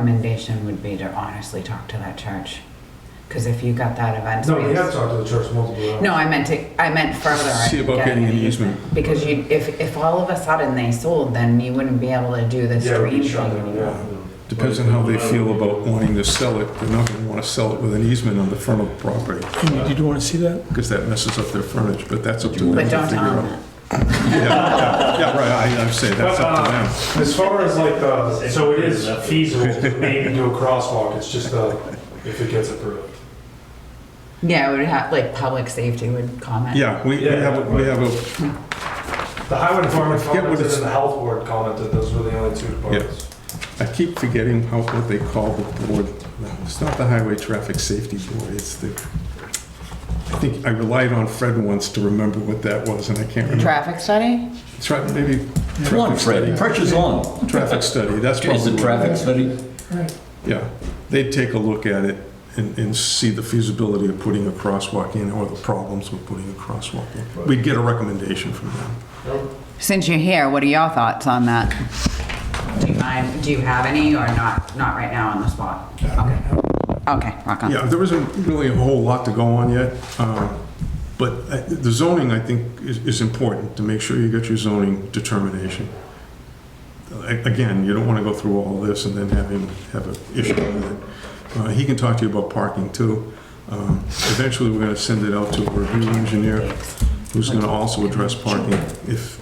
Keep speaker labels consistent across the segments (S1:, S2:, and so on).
S1: Recommendation would be to honestly talk to that church, because if you got that event.
S2: No, we
S1: space-
S2: have talked to the church multiple times.
S1: No, I meant to, I meant further. I
S3: See about
S1: forget.
S3: getting an easement.
S1: Because you, if, if all of a sudden they sold, then you wouldn't be able to do this
S2: Yeah, we
S1: dream
S2: can shut
S1: thing
S2: them
S1: anymore.
S2: down.
S3: Depends on how they feel about wanting to sell it. They're not gonna wanna sell it with an easement on the front of the property,
S4: Did you want to see that?
S3: because that messes up their frontage, but that's up to them to
S1: But
S3: figure
S1: don't um, own
S3: out.
S1: it.
S3: Yeah, yeah, yeah, right, I, I'm saying, that's up to them.
S2: But, uh, As far as like, the so it is feasible to maybe do a crosswalk, it's just, uh, if it gets approved.
S1: Yeah, it would have, like, public safety would comment.
S3: Yeah, we, we have, a- we have a
S2: The highway department
S3: Forget what
S2: commented
S3: it's-
S2: and the health board commented, those were the only two departments.
S3: I keep forgetting how, what they call the board. It's not the Highway Traffic Safety Board, it's the, I think, I relied on Fred once to remember what that was, and I can't remember.
S1: Traffic study?
S3: Tra- Maybe.
S5: Come on,
S3: traffic study.
S5: Fred, pressure's on.
S3: Traffic study, that's probably.
S5: Is it
S3: what
S5: traffic
S3: is.
S5: study?
S3: Yeah, they'd take a look at it and, and see the feasibility of putting a crosswalk in or the problems with putting a crosswalk in. We'd get a recommendation from them.
S1: Since you're here, what are your thoughts on that? Do you mind, do you have any or not, not right now on the spot? Okay. Okay, rock on.
S3: Yeah, there isn't really a whole lot to go on yet, um, but uh, the zoning, I think, is is important to make sure you get your zoning determination. A- Again, you don't want to go through all this and then have him have an issue with it. Uh, He can talk to you about parking, too. Um, Eventually, we're going to send it out to a review engineer who's going to also address parking if,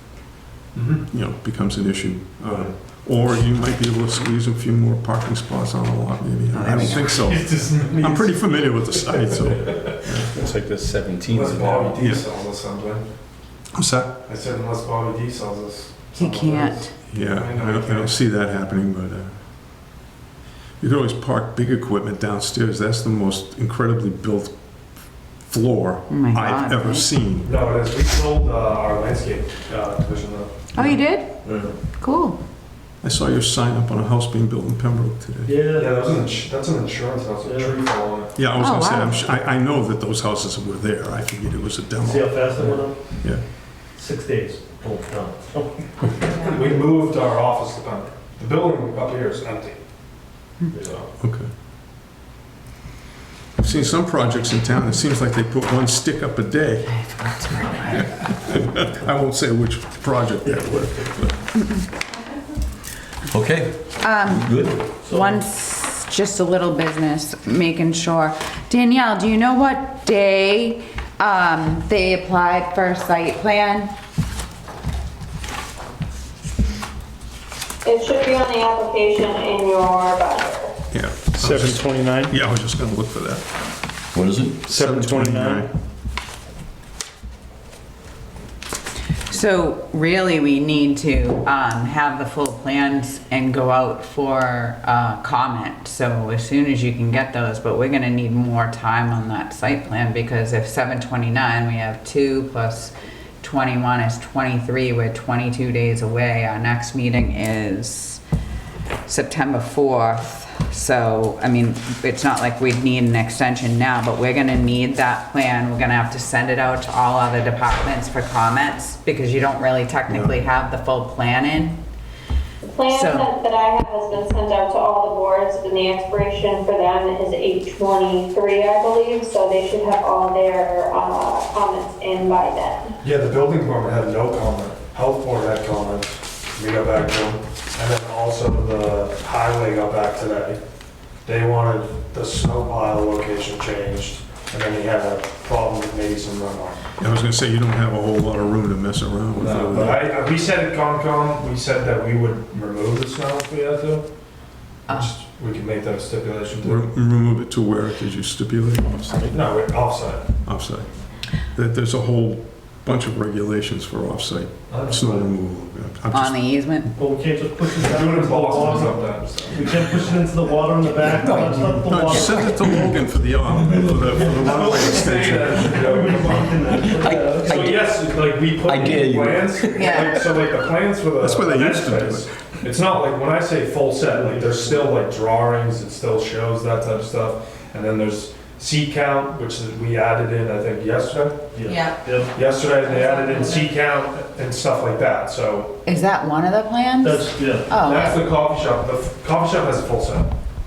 S2: Mhm.
S3: you know, becomes an issue. Uh, Or you might be able to squeeze a few more parking spots on the lot, maybe. I don't think so.
S2: It's just-
S3: I'm pretty familiar with the site, so.
S5: It's like the
S2: Unless
S5: 17th.
S2: Bobby D
S3: Yeah.
S2: sells us something.
S3: What's that?
S2: I said unless Bobby D sells us.
S1: He
S2: something else.
S1: can't.
S3: Yeah, I don't, I don't see that happening, but, uh, you could always park big equipment downstairs. That's the most incredibly built floor
S1: Oh my
S3: I've
S1: God,
S3: ever
S1: right?
S3: seen.
S2: No, it is, we sold, uh, our landscape, uh, division though.
S1: Oh, you did? Cool.
S3: I saw your sign up on a house being built in Pembroke today.
S2: Yeah, that was an, ins- that's an insurance house, a tree fell on it.
S3: Yeah, I was
S1: Oh,
S3: gonna say,
S1: wow.
S3: I'm, su- I, I know that those houses were there. I figured it was a
S6: See
S3: demo.
S6: how fast it went up?
S3: Yeah.
S6: Six days. Oh, no.
S2: We moved our office to Pembroke. The building up here is empty. So,
S3: Okay. I've seen some projects in town, it seems like they put one stick up a day. I won't say which project that was.
S5: Okay. Good.
S1: Once, just a little business, making sure. Danielle, do you know what day um, they applied for site plan?
S7: It should be on the application in your binder.
S3: Yeah.
S8: Seven twenty-nine?
S3: Yeah, I was just gonna look for that.
S5: What is it?
S8: Seven twenty-nine?
S1: So really, we need to um, have the full plans and go out for uh, comment. So as soon as you can get those, but we're gonna need more time on that site plan because if 729, we have two plus 21 is 23, we're 22 days away. Our next meeting is September 4th. So, I mean, it's not like we'd need an extension now, but we're gonna need that plan. We're gonna have to send it out to all other departments for comments because you don't really technically have the full plan in.
S7: The plan
S1: So-
S7: that that I have has been sent out to all the boards, and the expiration for them is 8/23, I believe, so they should have all their uh, comments in by then.
S2: Yeah, the building department had no comment, health board had comments, we got back to them, and then also the highway got back today. They wanted the snow pile location changed, and then he had a problem with maybe some runoff.
S3: I was gonna say, you don't have a whole lot of room to mess around with.
S2: No,
S3: over
S2: But
S3: there.
S2: I, I- we said at Concom, we said that we would remove the snow if we had to,
S1: Uh,
S2: which we can make that a stipulation
S3: Re-
S2: too.
S3: Remove it to where, did you stipulate? Offsite.
S2: No, we're offsite.
S3: Offsite. That, there's a whole bunch of regulations for offsite snow removal.
S1: On
S3: I'm just-
S1: the easement.
S6: But we can't just push it
S2: We do it
S6: down into
S2: in
S6: the
S2: Boston
S6: water.
S2: sometimes. so.
S6: We can't push it into the water in the back,
S5: No.
S6: that's not
S3: No,
S6: the
S3: just
S6: water.
S3: send it to Logan for the, um, for the for the runway extension.
S2: So yes, it's like we put
S5: I dare
S2: in
S5: you.
S2: plans,
S1: Yeah.
S2: like, so like the plans for the.
S3: That's where they
S2: the
S3: used to do
S2: next phase, It's not like, when I say full set, like there's still like drawings, it still shows that type of stuff. And then there's seat count, which is- we added in, I think, yesterday.
S6: Yeah. Yep.
S2: Yesterday, they added in seat count, and stuff like that, so
S1: Is that one of the plans?
S6: That's, yeah.
S1: Oh,
S2: that's the coffee shop. The f- coffee shop has a full set.